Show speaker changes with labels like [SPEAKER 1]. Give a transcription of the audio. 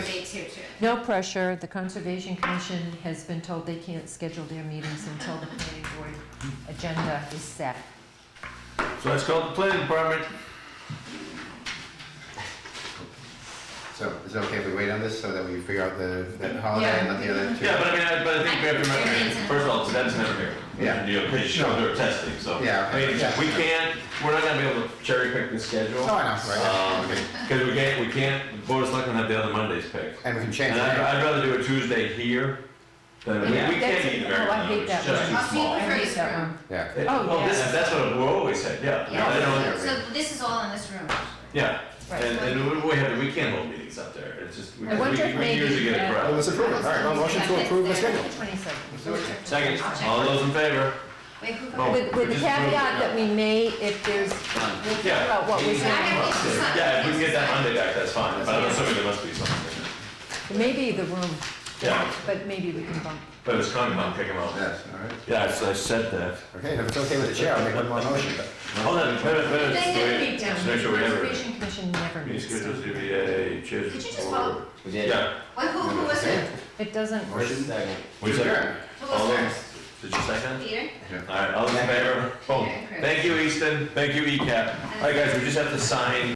[SPEAKER 1] two too.
[SPEAKER 2] No pressure, the Conservation Commission has been told they can't schedule their meetings until the planning board agenda is set.
[SPEAKER 3] So that's called the planning department.
[SPEAKER 4] So is it okay if we wait on this so that we figure out the, that holiday and let the other two?
[SPEAKER 3] Yeah, but I mean, I, but I think we have to remember, first of all, that's never here.
[SPEAKER 4] Yeah.
[SPEAKER 3] You know, they show their testing, so.
[SPEAKER 4] Yeah,
[SPEAKER 3] I mean,
[SPEAKER 4] yeah.
[SPEAKER 3] we can't, we're not gonna be able to cherry pick the schedule.
[SPEAKER 4] Oh, I know, right, okay.
[SPEAKER 3] Because we can't, we can't, the board is not gonna have the other Mondays picked.
[SPEAKER 4] And we can change
[SPEAKER 3] And I'd,
[SPEAKER 4] that.
[SPEAKER 3] I'd rather do a Tuesday here than, we, we
[SPEAKER 2] Yeah.
[SPEAKER 3] can't
[SPEAKER 2] That's-
[SPEAKER 3] meet
[SPEAKER 2] oh,
[SPEAKER 3] very
[SPEAKER 2] I hate
[SPEAKER 3] early, it's
[SPEAKER 2] that
[SPEAKER 3] just
[SPEAKER 2] one.
[SPEAKER 3] too small.
[SPEAKER 2] I
[SPEAKER 3] It-
[SPEAKER 1] I'll
[SPEAKER 2] hate that one.
[SPEAKER 4] Yeah,
[SPEAKER 2] Oh,
[SPEAKER 3] Well, this,
[SPEAKER 2] yes.
[SPEAKER 3] that's what we always said, yeah. No, they
[SPEAKER 1] Yeah,
[SPEAKER 3] don't-
[SPEAKER 1] so so this is all in this room.
[SPEAKER 3] Yeah,
[SPEAKER 2] Right.
[SPEAKER 3] and, and we- we have, we can't hold meetings up there, it's just, we,
[SPEAKER 2] I wonder if
[SPEAKER 3] we we usually
[SPEAKER 2] maybe,
[SPEAKER 3] get
[SPEAKER 2] uh,
[SPEAKER 3] a
[SPEAKER 4] well,
[SPEAKER 3] crowd.
[SPEAKER 4] let's approve it, all right, well, motion to approve the schedule.
[SPEAKER 2] Twenty-seven.
[SPEAKER 3] Second,
[SPEAKER 1] I'll check.
[SPEAKER 3] all those in favor?
[SPEAKER 1] Wait, who?
[SPEAKER 3] Oh.
[SPEAKER 2] With, with the caveat that we may, if there's, we'll figure
[SPEAKER 3] Yeah.
[SPEAKER 2] out what we
[SPEAKER 1] I have
[SPEAKER 2] can.
[SPEAKER 1] to- it's not-
[SPEAKER 3] Oh, Yeah, if we can get that Monday back, that's fine, but I'm assuming there must be something.
[SPEAKER 2] Maybe the room,
[SPEAKER 3] Yeah,
[SPEAKER 2] but maybe we can bump.
[SPEAKER 3] but it's coming, I'm picking them up.
[SPEAKER 4] Yes, all right.
[SPEAKER 3] Yeah, I said that.
[SPEAKER 4] Okay, and if it's okay with the chair, I'll make one more motion.
[SPEAKER 3] Hold on, wait, wait, wait,
[SPEAKER 1] They never
[SPEAKER 3] wait,
[SPEAKER 1] meet down
[SPEAKER 3] just make sure we have it.
[SPEAKER 2] Conservation Commission never
[SPEAKER 3] Meeting
[SPEAKER 2] meets.
[SPEAKER 3] schedules, ZBA,
[SPEAKER 1] Did you
[SPEAKER 3] changes.
[SPEAKER 1] just vote?
[SPEAKER 5] We did.
[SPEAKER 3] Yeah,
[SPEAKER 1] Wait, who, who was it?
[SPEAKER 2] It doesn't,
[SPEAKER 5] First,
[SPEAKER 4] Motion.
[SPEAKER 5] second.
[SPEAKER 3] we
[SPEAKER 4] Sure.
[SPEAKER 3] said,
[SPEAKER 1] Who was
[SPEAKER 3] all those,
[SPEAKER 1] first?
[SPEAKER 3] did you second?
[SPEAKER 1] Peter?
[SPEAKER 3] E All right, all those in favor? Boom. Thank you, Easton, thank you, ECAP. All right, guys, we just have to sign